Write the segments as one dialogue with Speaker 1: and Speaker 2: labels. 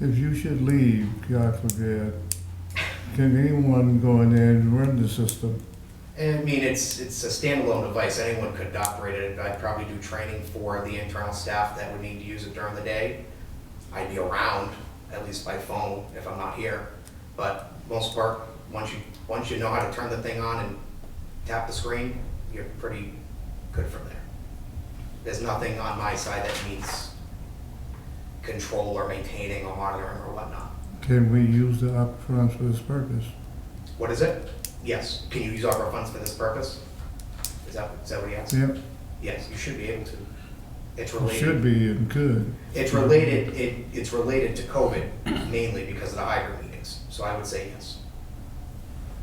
Speaker 1: If you should leave, God forbid, can anyone go in there and run the system?
Speaker 2: I mean, it's, it's a standalone device, anyone could operate it, I'd probably do training for the internal staff that would need to use it during the day. I'd be around, at least by phone, if I'm not here, but most part, once you, once you know how to turn the thing on and tap the screen, you're pretty good from there. There's nothing on my side that needs control or maintaining or monitoring or whatnot.
Speaker 1: Can we use the up funds for this purpose?
Speaker 2: What is it? Yes, can you use ARPA funds for this purpose? Is that, is that what he asked?
Speaker 1: Yep,
Speaker 2: Yes, you should be able to. It's
Speaker 1: it should
Speaker 2: related,
Speaker 1: be and could.
Speaker 2: it's related, it, it's related to COVID mainly because of the hybrid meetings, so I would say yes.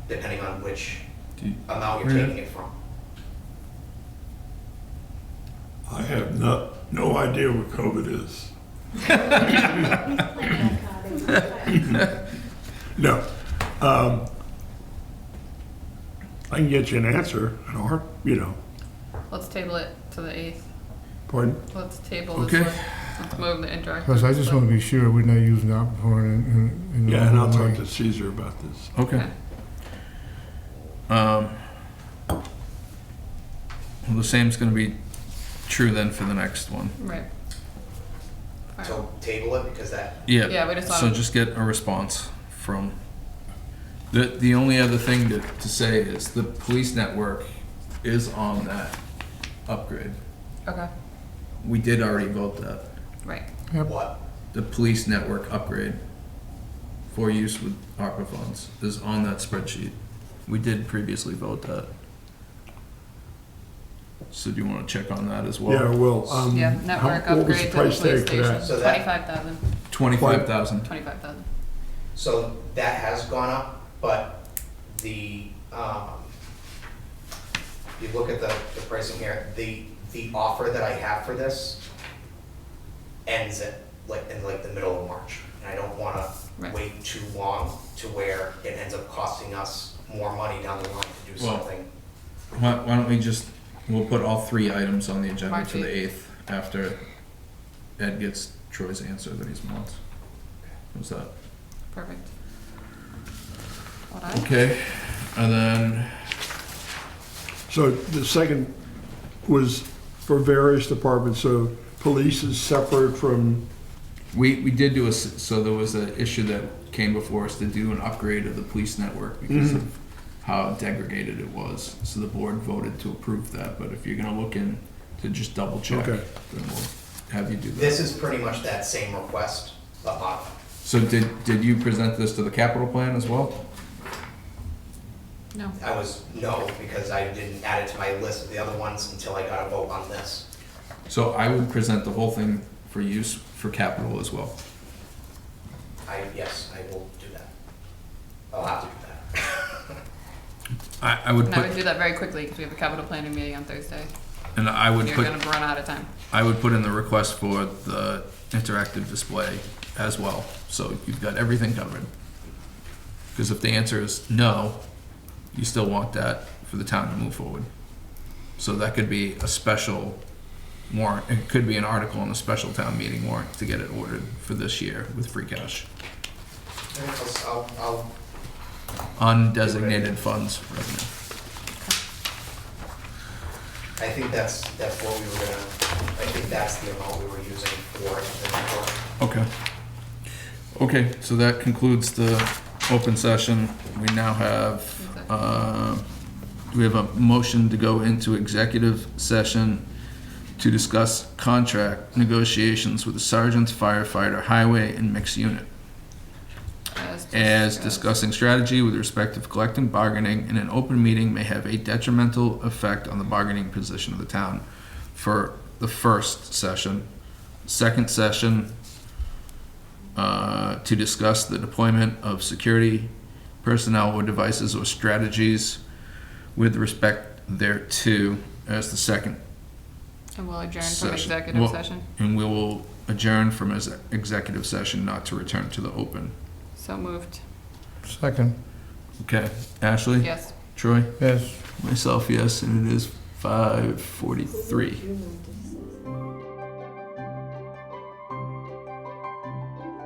Speaker 2: Depending on which
Speaker 3: Do you-
Speaker 2: amount you're
Speaker 1: Yeah.
Speaker 2: taking it from.
Speaker 4: I have not, no idea what COVID is. No. Um, I can get you an answer, an or, you know,
Speaker 5: Let's table it to the eighth.
Speaker 4: pardon?
Speaker 5: Let's table this
Speaker 4: Okay.
Speaker 5: one. Let's move the interactive.
Speaker 1: Because I just
Speaker 5: stuff.
Speaker 1: want to be sure we're not using the up fund in, in- in. the
Speaker 4: Yeah, and I'll
Speaker 1: wrong
Speaker 4: talk
Speaker 1: way.
Speaker 4: to Caesar about this.
Speaker 3: Okay. Um, well, the same's going to be true then for the next one.
Speaker 5: Right. Alright.
Speaker 2: So table it because that,
Speaker 3: Yeah.
Speaker 5: Yeah, we just
Speaker 3: so
Speaker 5: wanna-
Speaker 3: just get a response from. The, the only other thing to, to say is the police network is on that upgrade.
Speaker 5: Okay,
Speaker 3: We did already vote that.
Speaker 5: right.
Speaker 2: what,
Speaker 3: The police network upgrade for use with ARPA funds is on that spreadsheet. We did previously vote that. So do you want to check on that as well?
Speaker 4: Yeah, well, um.
Speaker 5: Yeah,
Speaker 4: how-
Speaker 5: network
Speaker 4: what was the
Speaker 5: upgrade to the
Speaker 4: price
Speaker 5: police
Speaker 4: tag for that?
Speaker 5: station.
Speaker 2: So that-
Speaker 5: Twenty-five thousand,
Speaker 3: Twenty-five thousand.
Speaker 5: twenty-five thousand.
Speaker 2: so that has gone up, but the, um, you look at the, the pricing here, the, the offer that I have for this ends at, like, in like the middle of March. And I don't wanna
Speaker 5: Right.
Speaker 2: wait too long to where it ends up costing us more money down the line to do
Speaker 3: Well-
Speaker 2: something.
Speaker 3: Why, why don't we just, we'll put all three items on the agenda
Speaker 5: March
Speaker 3: for the eighth after Ed gets Troy's answer that he's wants. What's that?
Speaker 5: Perfect. What I,
Speaker 3: Okay, and then,
Speaker 4: So the second was for various departments, so police is separate from,
Speaker 3: we, we did do a, s- so there was an issue that came before us to do an upgrade of the police network because of how degraded it was. So the board voted to approve that, but if you're gonna look in to just double check, then
Speaker 4: Okay.
Speaker 3: we'll have you do that.
Speaker 2: This is pretty much that same request, but modified.
Speaker 3: So did, did you present this to the capital plan as well?
Speaker 5: no,
Speaker 2: I was, no, because I didn't add it to my list of the other ones until I got a vote on this.
Speaker 3: So I would present the whole thing for use for capital as well.
Speaker 2: I, yes, I will do that. I'll have to do that.
Speaker 3: I, I would
Speaker 5: and I would
Speaker 3: put,
Speaker 5: do that very quickly because we have a capital planning meeting on Thursday.
Speaker 3: and I would
Speaker 5: You're
Speaker 3: put,
Speaker 5: gonna run out of time.
Speaker 3: I would put in the request for the interactive display as well, so you've got everything covered. Because if the answer is no, you still want that for the town to move forward. So that could be a special warrant, it could be an article in a special town meeting warrant to get it ordered for this year with free cash.
Speaker 2: I'll, I'll
Speaker 3: Undesignated funds revenue.
Speaker 2: I think that's, that's what we were gonna, I think that's the amount we were using for it.
Speaker 3: Okay. Okay, so that concludes the open session. We now have, uh, we have a motion to go into executive session to discuss contract negotiations with the sergeant's firefighter, highway, and mixed unit, as discussing strategy with respect to collective bargaining in an open meeting may have a detrimental effect on the bargaining position of the town for the first session. Second session, uh, to discuss the deployment of security personnel or devices or strategies with respect thereto as the second,
Speaker 5: And we'll adjourn from
Speaker 3: Session.
Speaker 5: executive
Speaker 3: Well-
Speaker 5: session.
Speaker 3: and we will adjourn from his executive session not to return to the open.
Speaker 5: So moved.
Speaker 1: Second,
Speaker 3: Okay, Ashley?
Speaker 5: Yes.
Speaker 3: Troy?
Speaker 1: yes.
Speaker 3: Myself, yes, and it is five forty-three.